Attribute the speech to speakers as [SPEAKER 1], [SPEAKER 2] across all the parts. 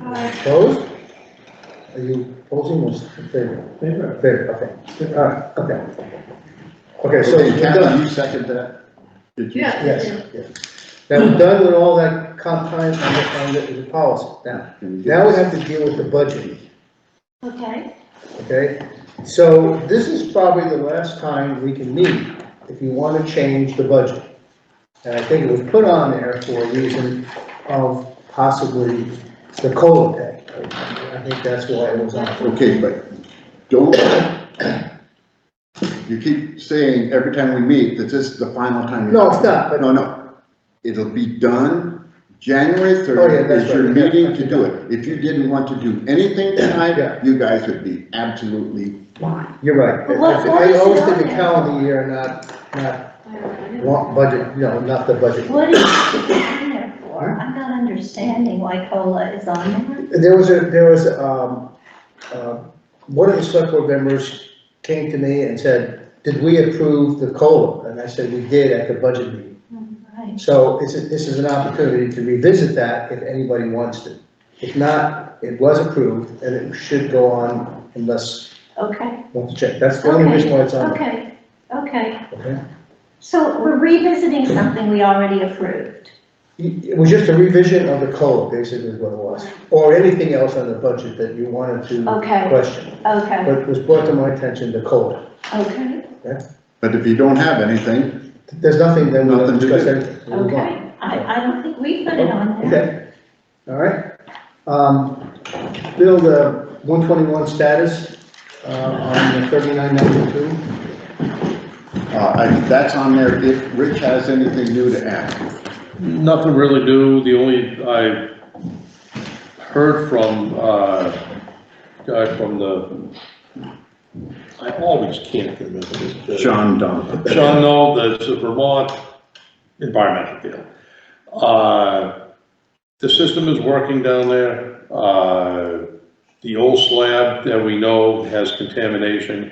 [SPEAKER 1] Opposed? Are you opposing or in favor?
[SPEAKER 2] Favor.
[SPEAKER 1] Favor, okay. All right, okay. Okay, so
[SPEAKER 3] So
[SPEAKER 1] we're
[SPEAKER 3] Kathy,
[SPEAKER 1] done.
[SPEAKER 3] you second that? Did you?
[SPEAKER 4] Yeah.
[SPEAKER 1] Yes, yes. Now, we're done with all that comp time and the, and the- the policy. Now,
[SPEAKER 3] Can we do
[SPEAKER 1] now we
[SPEAKER 3] this?
[SPEAKER 1] have to deal with the budget.
[SPEAKER 4] Okay,
[SPEAKER 1] Okay, so this is probably the last time we can meet if you want to change the budget. And I think it was put on there for a reason of possibly the COLA pay. I think that's why it was on.
[SPEAKER 3] Okay, but don't, you keep saying every time we meet that this is the final time. we-
[SPEAKER 1] No, it's not, but-
[SPEAKER 3] No, no, it'll be done, January
[SPEAKER 1] Oh, yeah,
[SPEAKER 3] third
[SPEAKER 1] that's
[SPEAKER 3] is your
[SPEAKER 1] right, yeah.
[SPEAKER 3] meeting to do it. If you didn't want to do anything
[SPEAKER 1] Yeah.
[SPEAKER 3] tonight, you guys would be absolutely fine.
[SPEAKER 1] You're right.
[SPEAKER 4] But what- what
[SPEAKER 1] I
[SPEAKER 4] is
[SPEAKER 1] always
[SPEAKER 4] it
[SPEAKER 1] think the
[SPEAKER 4] on there?
[SPEAKER 1] calendar year, not, not,
[SPEAKER 4] I don't know.
[SPEAKER 1] want budget, you know, not the budget.
[SPEAKER 4] What is it on there for? I'm not understanding why COLA is on there.
[SPEAKER 1] There was a, there was, um, uh, one of the select board members came to me and said, did we approve the COLA? And I said, we did at the budget meeting.
[SPEAKER 4] Right.
[SPEAKER 1] So it's, a- this is an opportunity to revisit that if anybody wants to. If not, it was approved and it should go on unless,
[SPEAKER 4] Okay,
[SPEAKER 1] wants to check. That's the only reason why it's on. there,
[SPEAKER 4] okay, okay.
[SPEAKER 1] okay?
[SPEAKER 4] So we're revisiting something we already approved.
[SPEAKER 1] It was just a revision of the code, basically is what it was, or anything else on the budget that you wanted to
[SPEAKER 4] Okay,
[SPEAKER 1] question. But
[SPEAKER 4] okay,
[SPEAKER 1] it was brought to my attention, the code.
[SPEAKER 4] okay,
[SPEAKER 3] But if you don't have anything,
[SPEAKER 1] There's nothing, then we'll
[SPEAKER 3] Nothing to
[SPEAKER 1] discuss
[SPEAKER 3] do.
[SPEAKER 1] anything. We'll move on.
[SPEAKER 4] okay. I, I don't think we put it on there.
[SPEAKER 1] Okay, all right. Um, Bill, the one twenty-one status, uh, on the thirty-nine ninety-two,
[SPEAKER 3] uh, I- that's on there if Rich has anything new to add.
[SPEAKER 5] Nothing really new, the only, I heard from, uh, guy from the, I always can't remember his. name.
[SPEAKER 3] John Donovan.
[SPEAKER 5] Sean Knoll, the Vermont Environmental Field. Uh, The system is working down there. Uh, The old slab that we know has contamination.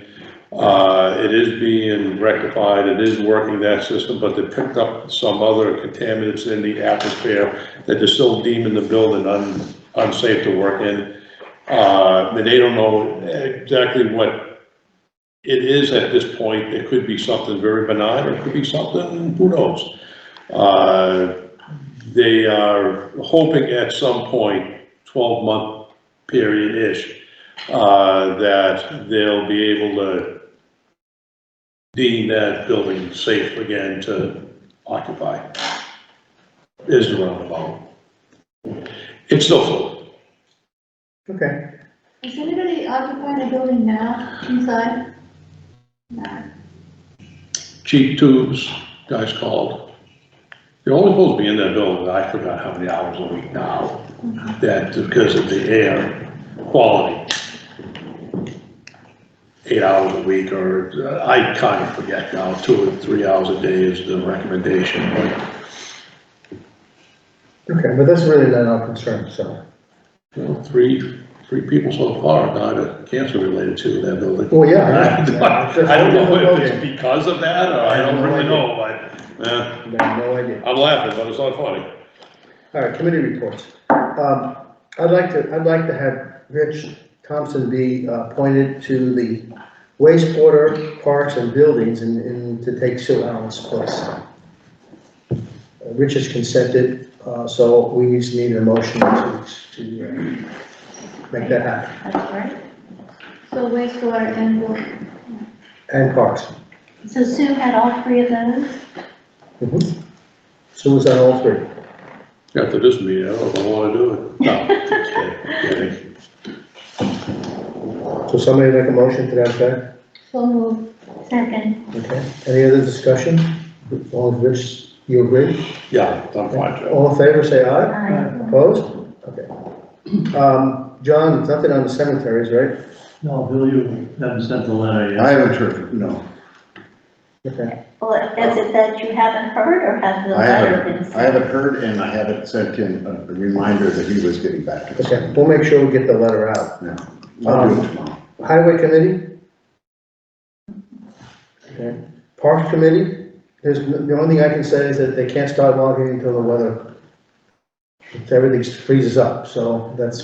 [SPEAKER 5] Uh, It is being rectified, it is working that system, but they picked up some other contaminants in the atmosphere that they're still deeming the building un- unsafe to work in. Uh, But they don't know exactly what it is at this point, it could be something very benign, or it could be something, who knows? Uh, They are hoping at some point, twelve-month period-ish, uh, that they'll be able to deem that building safe again to occupy. Is the roundabout. It's still full.
[SPEAKER 1] okay.
[SPEAKER 6] Is anybody occupying a building now inside? No.
[SPEAKER 5] cheap tubes, guys called. They're only supposed to be in that building, I forgot how many hours a week now, that, because of the air quality. Eight hours a week, or, uh, I kind of forget now, two or three hours a day is the recommendation, but,
[SPEAKER 1] Okay, but that's really not our concern, so.
[SPEAKER 5] you know, three, three people so far died of cancer related to that building.
[SPEAKER 1] Well, yeah.
[SPEAKER 5] I don't- I don't know if it's
[SPEAKER 1] Yeah.
[SPEAKER 5] because of that, or I don't really know, but, eh,
[SPEAKER 1] I have no idea.
[SPEAKER 5] I'm laughing, but it's not funny.
[SPEAKER 1] All right, uh, committee reports. Um, I'd like to, I'd like to have Rich Thompson be uh, appointed to the wastewater parks and buildings and, and to take Sue Allen's place. Uh, Rich has consented, uh, so we just need a motion to, to uh, make that happen,
[SPEAKER 4] That's right.
[SPEAKER 6] So wastewater and water.
[SPEAKER 1] and parks.
[SPEAKER 4] So Sue had all three of those?
[SPEAKER 1] Mhm. Sue was on all three.
[SPEAKER 5] After this meeting, I don't know if I wanna do it. No, just kidding, kidding.
[SPEAKER 1] So somebody make a motion to that effect?
[SPEAKER 6] So moved.
[SPEAKER 4] Second,
[SPEAKER 1] Okay. Any other discussion? All of which, you agree?
[SPEAKER 5] Yeah, I'm fine, Joe.
[SPEAKER 1] All in favor, say aye.
[SPEAKER 4] aye.
[SPEAKER 1] Opposed? Okay. Um, John, nothing on the cemeteries, right?
[SPEAKER 2] No, Bill, you haven't sent the letter
[SPEAKER 3] I
[SPEAKER 2] yet.
[SPEAKER 3] haven't heard, no.
[SPEAKER 1] Okay,
[SPEAKER 4] Well, is it that you haven't heard or has the
[SPEAKER 3] I
[SPEAKER 4] letter been
[SPEAKER 3] haven't,
[SPEAKER 4] sent?
[SPEAKER 3] I haven't heard, and I haven't sent him a a reminder that he was getting back to us.
[SPEAKER 1] okay, we'll make sure we get the letter out.
[SPEAKER 3] No, I'll do it tomorrow.
[SPEAKER 1] Highway committee? Okay. Parks committee? There's, n- the only thing I can say is that they can't start logging until the weather, everything freezes up, so that's